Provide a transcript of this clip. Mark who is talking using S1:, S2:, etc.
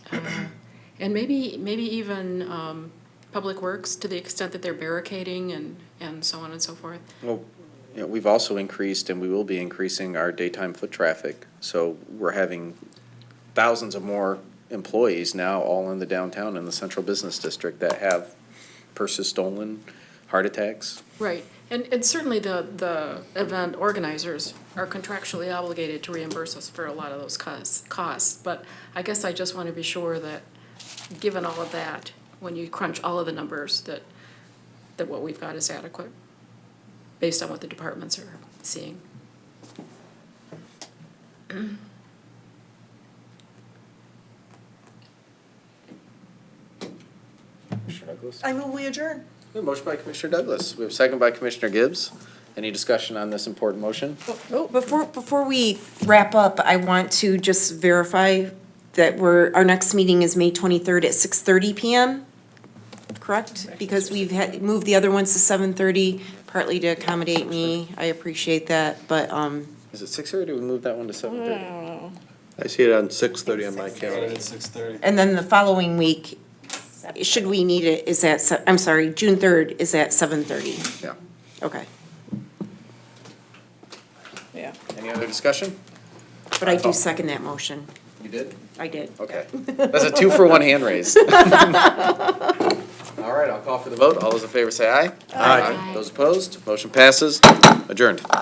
S1: And maybe, maybe even um, Public Works, to the extent that they're barricading and, and so on and so forth.
S2: Well, you know, we've also increased and we will be increasing our daytime foot traffic. So we're having thousands of more employees now all in the downtown and the central business district that have purses stolen, heart attacks.
S1: Right, and, and certainly the, the event organizers are contractually obligated to reimburse us for a lot of those costs, costs. But I guess I just want to be sure that, given all of that, when you crunch all of the numbers, that, that what we've got is adequate, based on what the departments are seeing.
S2: Commissioner Douglas?
S3: I move we adjourn.
S2: We have a Motion by Commissioner Douglas. We have a second by Commissioner Gibbs. Any discussion on this important motion?
S3: Oh,
S4: Before, before we wrap up, I want to just verify that we're, our next meeting is May twenty-third at six thirty PM, correct? Because we've had, moved the other ones to seven thirty, partly to accommodate me, I appreciate that, but, um,
S2: Is it six thirty? Do we move that one to seven thirty?
S5: I see it on six thirty on my calendar.
S6: At six thirty.
S4: and then the following week, should we need it, is at, se- I'm sorry, June third is at seven thirty,
S2: Yeah.
S4: okay.
S3: yeah.
S2: Any other discussion?
S4: But I do second that motion,
S2: You did?
S4: I did.
S2: Okay. That's a two for one hand raise. All right, I'll call for the vote. All those in favor say aye.
S6: Aye.
S2: Those opposed? Motion passes. Adjourned.